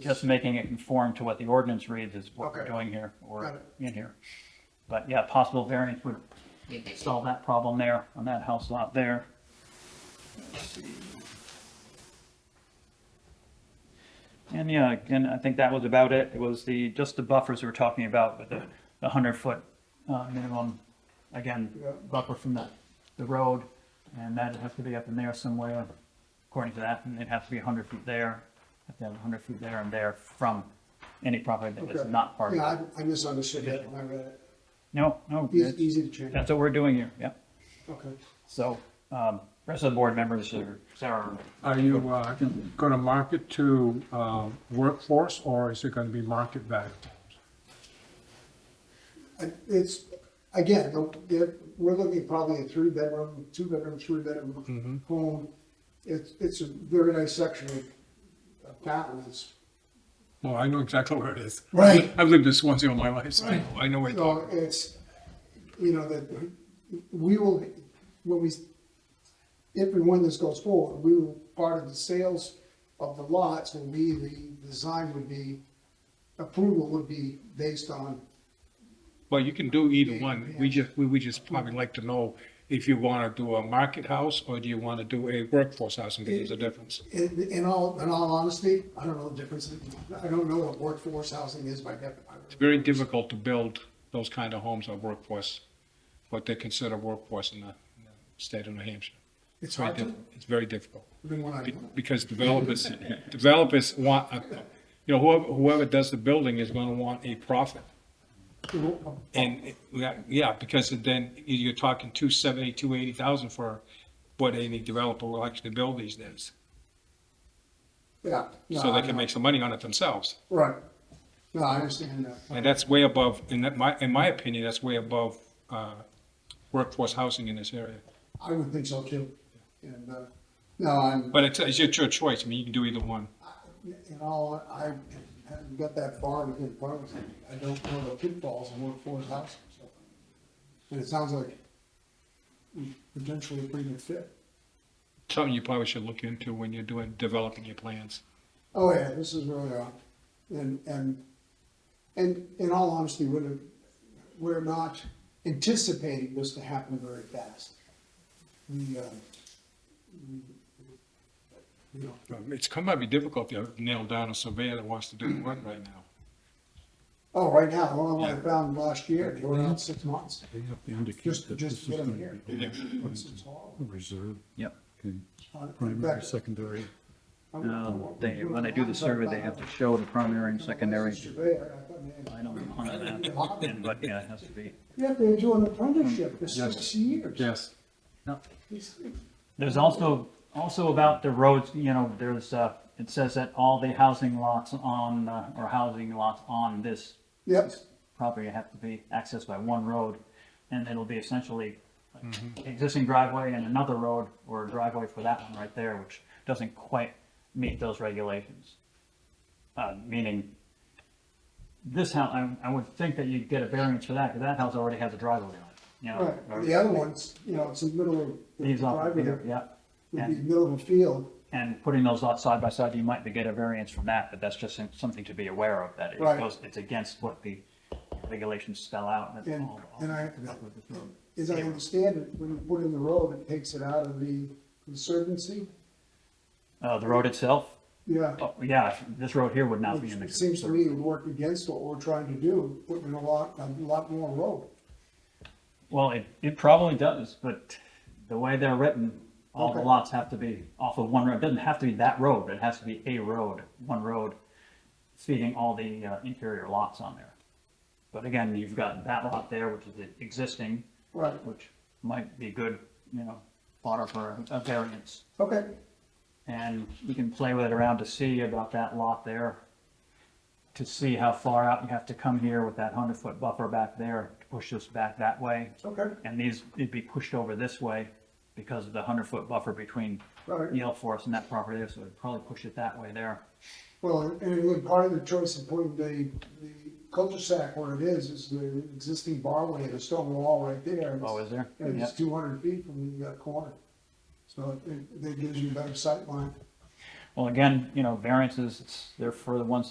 Just making it conform to what the ordinance reads is what we're Okay. doing here Got or it. in here. But yeah, possible variance would solve that problem there on that house lot there. Let's see. And yeah, again, I think that was about it. It was the, just the buffers we were talking about with the, the hundred foot, uh, minimum. Again, Yeah. buffer from the, the road and that'd have to be up in there somewhere according to that, and it'd have to be hundred feet there. Have to have hundred feet there and there from any property that is Okay. not part of Yeah, it. I- I misunderstood that when I read it. No, no, Easy, it's- easy to change. that's what we're doing here, yeah. Okay. So, um, rest of the board members are, Sarah, Are you uh, going to market to uh, workforce, or is it going to be market value? I- It's, again, the- the- we're looking probably a three-bedroom, two-bedroom, three-bedroom home. It's, it's a very nice section of of town. It's, Well, I know exactly where it is. Right. I've lived in Swansea all my life, so I know- I know where it's so it's, you know, that, we will, when we, if and when this goes forward, we will, part of the sales of the lots will be, the design would be, approval would be based on Well, you can do either one. We just, we would just probably like to know if you want to do a market house, or do you want to do a workforce house, and there's a difference. In, in all, in all honesty, I don't know the difference. I don't know what workforce housing is by It's definition. very difficult to build those kind of homes or workforce, what they consider workforce in the in the state of New Hampshire. It's Very hard to, diff- It's very difficult. even when I, Be- because developers, developers want, a- you know, whoever, whoever does the building is gonna want a profit. And, it- yeah, yeah, because then you're talking two seventy, two eighty thousand for what any developer will actually build these days. yeah. no, So they I can know. make some money on it themselves. Right. No, I understand that. And that's way above, in that, my, in my opinion, that's way above, uh, workforce housing in this area. I would think so too. And, uh, no, I'm, But it's, it's your your choice, I mean, you can do either one. in all, I haven't got that far to get far with it. I don't know the pitfalls of workforce housing. so. And it sounds like potentially a pretty good fit. Something you probably should look into when you're doing, developing your plans. Oh, yeah, this is really odd. And, and, and in all honesty, we're, we're not anticipating this to happen very fast. We, uh, we, you know, Um, It's going to be difficult to nail down a surveyor that wants to do the work right now. oh, right now, the one I found last year, they were out six months, They have to indicate just, that this just is to get going them here. to be What's it's all reserve, yep. okay, about. In primary, fact, secondary. I'm- I'm- Um, they, when they do the survey, they have to show the primary and secondary. Surveyor, I thought, man, I don't know on that, but yeah, it has to be. You have to do an apprenticeship for six years. Yes. It's- There's also, also about the roads, you know, there's, uh, it says that all the housing lots on, uh, or housing lots on this Yep, property have to be accessed by one road, and it'll be essentially like, existing driveway and another road, or a driveway for that one right there, which doesn't quite meet those regulations. Uh, meaning, this house, I, I would think that you'd get a variance for that, because that house already has a driveway on it, you know? right. or- The other ones, you know, it's in the middle of. the These off, driveway. yeah, would be And- middle of the field. and putting those lots side by side, you might be get a variance from that, but that's just something to be aware of, that it Right. goes, it's against what the regulations spell out. and it's And, all- all- and I, with this road. as I understand it, when you put in the road, it takes it out of the conservancy. Uh, the road itself, Yeah. Oh, yeah, this road here would not be in the. It seems to me it would work against what we're trying to do, putting a lot, a lot more road. Well, it, it probably does, but the way they're written, all the Okay. lots have to be off of one road. It doesn't have to be that road, but it has to be a road, one road feeding all the uh, interior lots on there. But again, you've got that lot there, which is the existing, Right. which might be good, you know, fodder for a a variance. Okay, And we can play with it around to see about that lot there, to see how far out you have to come here with that hundred foot buffer back there, to push this back that way. okay, And these, it'd be pushed over this way because of the hundred foot buffer between Right. Yale Forest and that property there, so it'd probably push it that way there. well, and look, part of the choice of putting the, the cul-de-sac where it is, is the existing barway and a stone wall right there. and it's- Oh, is there? And it's Yeah. two hundred feet from the uh, corner. So it, it gives you a better sight line. Well, again, you know, variances, it's- they're for the ones